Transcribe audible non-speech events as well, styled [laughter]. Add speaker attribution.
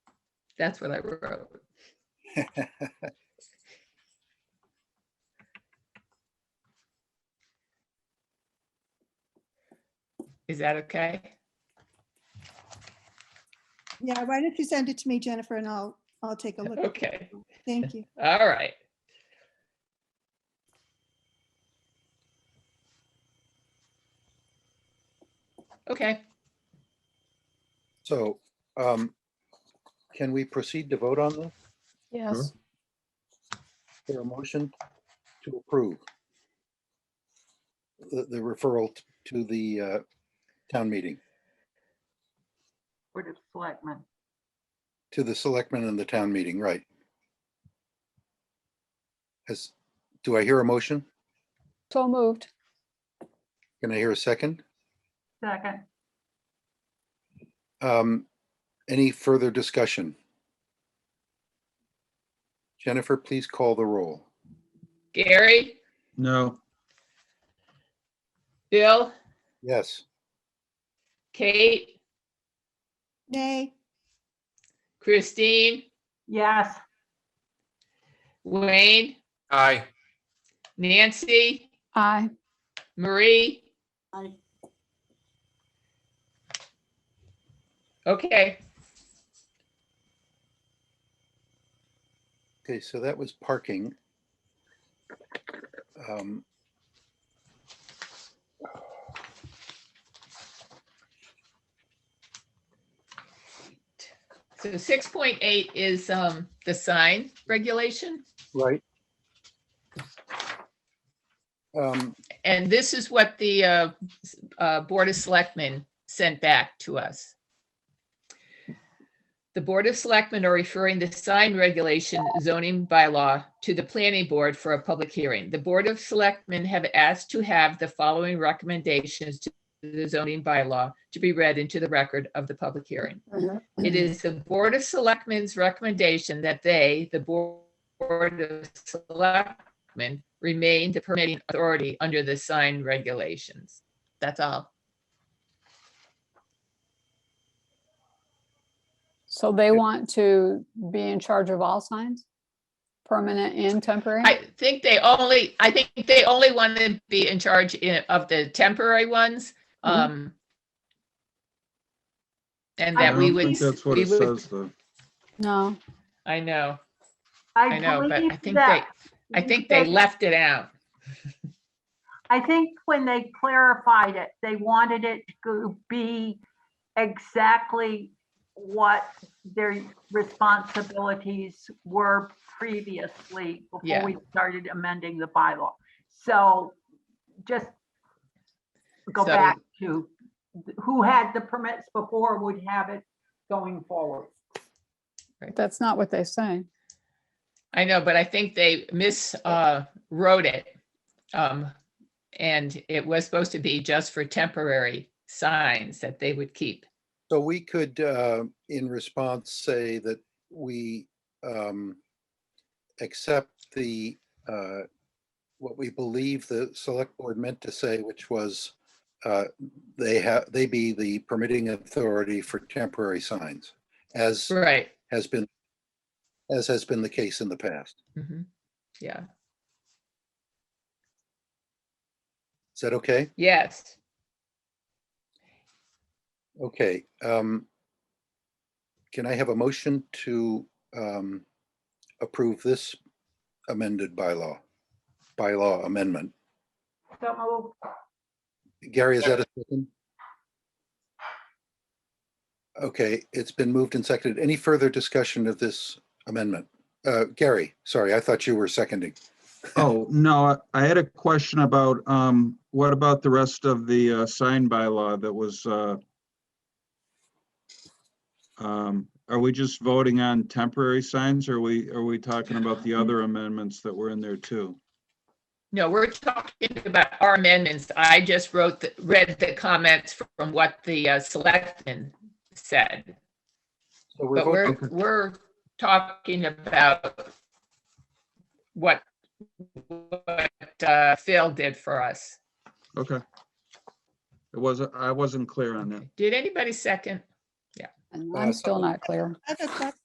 Speaker 1: That's what I wrote. [laughs] Is that okay?
Speaker 2: Yeah, why don't you send it to me, Jennifer, and I'll, I'll take a look. at it.
Speaker 1: Okay,
Speaker 2: Thank you.
Speaker 1: all right. Okay,
Speaker 3: So, um, can we proceed to vote on this?
Speaker 4: Yes.
Speaker 3: There a motion to approve the, the referral t- to the, uh, town meeting,
Speaker 5: Board of Selectmen.
Speaker 3: to the selectmen and the town meeting, right? Has, do I hear a motion?
Speaker 4: So moved.
Speaker 3: Can I hear a second?
Speaker 5: Second,
Speaker 3: Um, any further discussion? Jennifer, please call the roll.
Speaker 1: Gary,
Speaker 6: No,
Speaker 1: Bill,
Speaker 3: Yes,
Speaker 1: Kate,
Speaker 2: Nay,
Speaker 1: Christine,
Speaker 5: yes,
Speaker 1: Wayne,
Speaker 7: Aye,
Speaker 1: Nancy,
Speaker 4: Aye.
Speaker 1: Marie? Okay,
Speaker 3: okay, so that was parking. Um,
Speaker 1: so six point eight is um the sign regulation,
Speaker 3: Right. Um,
Speaker 1: and this is what the uh s- uh Board of Selectmen sent back to us. The Board of Selectmen are referring the sign regulation zoning bylaw to the planning board for a public hearing. The Board of Selectmen have asked to have the following recommendations to the zoning bylaw to be read into the record of the public hearing. It is the Board of Selectmen's recommendation that they, the Board of Selectmen, remain the permitting authority under the sign regulations. That's all.
Speaker 4: So they want to be in charge of all signs? Permanent and temporary?
Speaker 1: I think they only, I think they only want to be in charge i- of the temporary ones.
Speaker 4: Mhm.
Speaker 1: um, And
Speaker 6: Mm-hmm. I
Speaker 1: that we
Speaker 6: don't
Speaker 1: would,
Speaker 6: think that's what
Speaker 1: we
Speaker 6: it
Speaker 1: would-
Speaker 6: says, though.
Speaker 4: No.
Speaker 1: I know, I
Speaker 5: I
Speaker 1: know, but I
Speaker 5: believe
Speaker 1: think they,
Speaker 5: that.
Speaker 6: Mm-hmm.
Speaker 1: I think they left it out.
Speaker 5: I think when they clarified it, they wanted it to be exactly what their responsibilities were previously
Speaker 1: Yeah.
Speaker 5: before we started amending the bylaw. So just go
Speaker 1: So-
Speaker 5: back to who had the permits before would have it going forward.
Speaker 4: That's not what they say.
Speaker 1: I know, but I think they mis, uh, wrote it. Um, and it was supposed to be just for temporary signs that they would keep.
Speaker 3: so we could, uh, in response, say that we, um, accept the, uh, what we believe the select board meant to say, which was, uh, they have, they be the permitting authority for temporary signs, as
Speaker 1: Right.
Speaker 3: has been, as has been the case in the past.
Speaker 1: Mhm. Yeah,
Speaker 3: Is that okay?
Speaker 1: yes.
Speaker 3: Okay, um, can I have a motion to, um, approve this amended bylaw? Bylaw amendment.
Speaker 5: So moved.
Speaker 3: Gary, is that a second? Okay, it's been moved and seconded. Any further discussion of this amendment? Uh, Gary, sorry, I thought you were seconding.
Speaker 6: Oh, no, I- I had a question about, um, what about the rest of the, uh, sign bylaw that was, uh, um, are we just voting on temporary signs? Or are we, are we talking about the other amendments that were in there too?
Speaker 1: No, we're talking about our amendments. I just wrote, the- read the comments from what the uh, selectmen said.
Speaker 3: So we're
Speaker 1: But
Speaker 3: voting-
Speaker 1: we're, we're talking about what, what uh, Phil did for us.
Speaker 6: Okay. It wasn't, I wasn't clear on that.
Speaker 1: Did anybody second?
Speaker 4: And
Speaker 3: Uh,
Speaker 4: I'm still not clear.
Speaker 2: I thought that